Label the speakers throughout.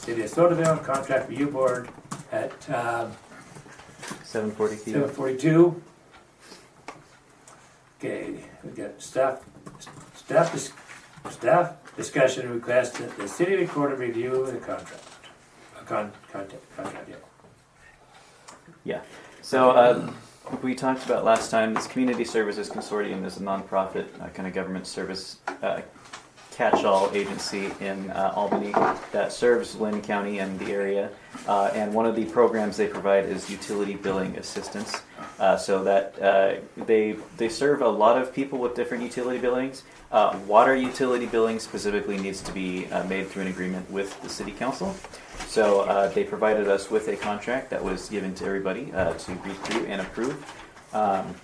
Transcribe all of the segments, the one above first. Speaker 1: City of Sotaville, contract review board at uh,
Speaker 2: Seven forty feet.
Speaker 1: seven forty-two. Okay, we got staff, staff, dis- staff discussion request that the city recorder review the contract. A con, contact, contract, yeah.
Speaker 2: So, uh, we talked about last time, this Community Services Consortium is a nonprofit, uh, kind of government service uh, catch all agency in uh, Albany that serves Lynn County and the area. Uh, and one of the programs they provide is utility billing assistance. Uh, so that uh, they they serve a lot of people with different utility billings. Uh, water utility billing specifically needs to be uh, made through an agreement with the city council. So uh, they provided us with a contract that was given to everybody uh, to read through and approve. Um,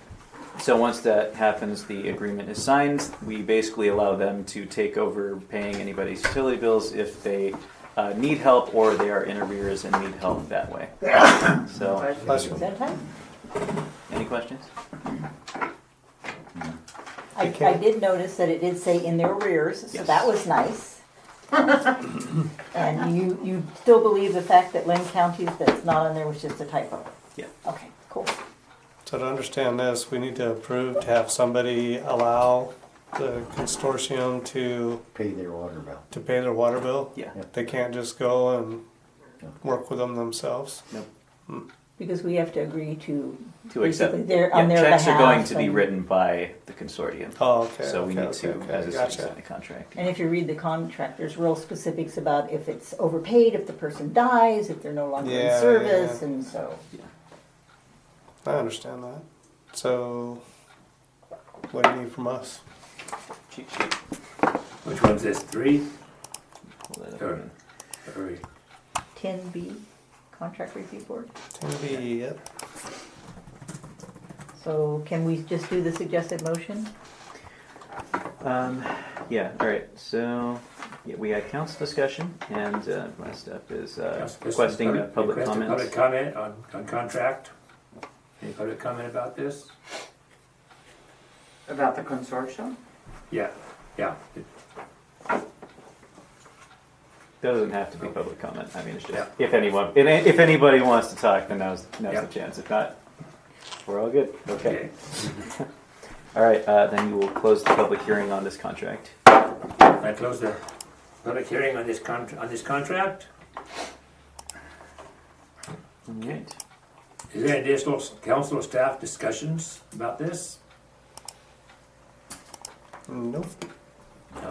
Speaker 2: so once that happens, the agreement is signed. We basically allow them to take over paying anybody's utility bills if they uh, need help or they are in arrears and need help that way. So,
Speaker 3: Is that time?
Speaker 2: any questions?
Speaker 3: I, I did notice that it did say in their rears, so
Speaker 2: Yes.
Speaker 3: that was nice. And you, you still believe the fact that Lynn County, that's not on there, was just a typo?
Speaker 2: Yeah.
Speaker 3: Okay, cool.
Speaker 4: So to understand this, we need to approve to have somebody allow the consortium to,
Speaker 5: pay their water bill.
Speaker 4: to pay their water bill?
Speaker 2: Yeah.
Speaker 4: They can't just go and work with them themselves?
Speaker 3: Because we have to agree to.
Speaker 2: To accept.
Speaker 3: basically Their,
Speaker 2: Yeah,
Speaker 3: on their behalf.
Speaker 2: checks are going to be
Speaker 3: and-
Speaker 2: written by the consortium.
Speaker 4: Oh, okay.
Speaker 2: so we
Speaker 4: okay,
Speaker 2: need to,
Speaker 4: okay, okay,
Speaker 2: as a
Speaker 4: gotcha.
Speaker 2: citizen, sign a contract.
Speaker 3: And if you read the contract, there's real specifics about if it's overpaid, if the person dies, if they're no longer
Speaker 4: Yeah,
Speaker 3: in
Speaker 4: yeah,
Speaker 3: service,
Speaker 4: yeah.
Speaker 3: and so.
Speaker 4: I understand that. So what do you need from us?
Speaker 2: Cheat sheet.
Speaker 1: Which one's this, three
Speaker 2: Pull that up.
Speaker 1: Sure. or
Speaker 2: Uh,
Speaker 3: Ten B, contract review board.
Speaker 4: Ten B, yep.
Speaker 3: So can we just do the suggested motion?
Speaker 2: Um, yeah, all right. So yeah, we had council discussion, and uh, my step is uh,
Speaker 1: Yes, this is
Speaker 2: requesting uh, public
Speaker 1: request a Public
Speaker 2: comments.
Speaker 1: comment on, on contract. Any public comment about this?
Speaker 6: About the consortium?
Speaker 1: Yeah, yeah.
Speaker 2: That doesn't have to be public comment. I mean, it's just
Speaker 1: Yeah.
Speaker 2: if anyone, and if anybody wants to talk, then now's now's
Speaker 1: Yeah.
Speaker 2: the chance. If not, we're all good. Okay. All right. Uh, then you will close the public hearing on this contract.
Speaker 1: I close the public hearing on this con, on this contract.
Speaker 2: All right.
Speaker 1: Is there additional s- council staff discussions about this?
Speaker 4: Nope.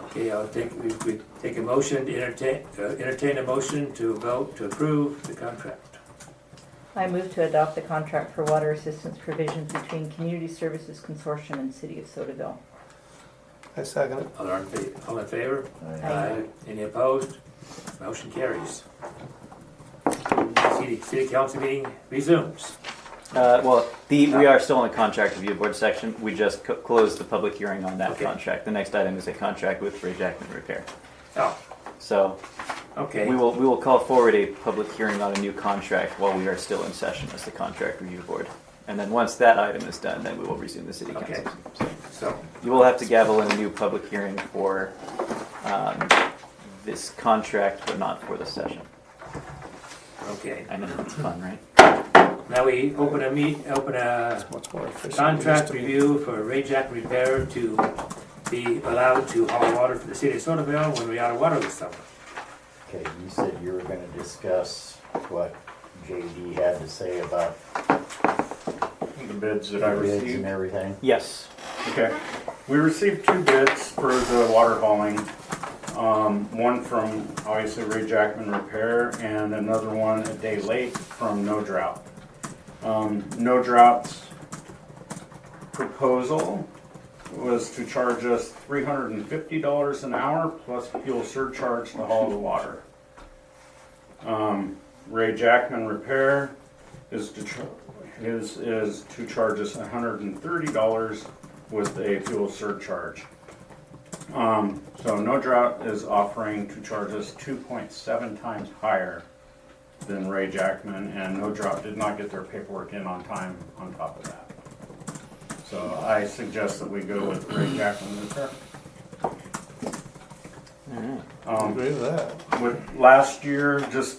Speaker 1: Okay, I'll take, we, we take a motion, to entertain, uh, entertain a motion to vote to approve the contract.
Speaker 3: I move to adopt the contract for water assistance provisions between Community Services Consortium and City of Sotaville.
Speaker 4: I second it.
Speaker 1: All in, fa- all in favor?
Speaker 3: Aye.
Speaker 1: Any opposed? Motion carries. City, city council meeting resumes.
Speaker 2: Uh, well, the, we are still in the contract review board section. We just co- closed the public hearing on that
Speaker 1: Okay.
Speaker 2: contract. The next item is a contract with Ray Jackman Repair.
Speaker 1: Oh,
Speaker 2: So
Speaker 1: okay.
Speaker 2: We will, we will call forward a public hearing on a new contract while we are still in session as the contract review board. And then once that item is done, then we will resume the city council.
Speaker 1: Okay.
Speaker 2: So
Speaker 1: So,
Speaker 2: You will have to gavel in a new public hearing for, um, this contract, but not for the session.
Speaker 1: okay.
Speaker 2: I know, it's fun, right?
Speaker 1: Now we open a meet, open a
Speaker 4: Much more efficient.
Speaker 1: contract
Speaker 4: Used to be-
Speaker 1: review for Ray Jack Repair to be allowed to haul water for the city of Sotaville when we out of water this summer.
Speaker 5: Okay, you said you were gonna discuss what JD had to say about
Speaker 7: The bids that I
Speaker 5: the bids and
Speaker 7: received.
Speaker 5: everything.
Speaker 2: Yes.
Speaker 7: Okay. We received two bids for the water hauling. Um, one from obviously Ray Jackman Repair and another one a day late from No Drought. Um, no Drought's proposal was to charge us three hundred and fifty dollars an hour plus fuel surcharge to haul the water. Um, Ray Jackman Repair is to, char- is, is to charge us hundred and thirty dollars with a fuel surcharge. Um, so No Drought is offering to charge us two point seven times higher than Ray Jackman, and No Drought did not get their paperwork in on time on top of that. So I suggest that we go with Ray Jackman Repair.
Speaker 2: All right.
Speaker 7: Um,
Speaker 4: Agree with that.
Speaker 7: with last year, just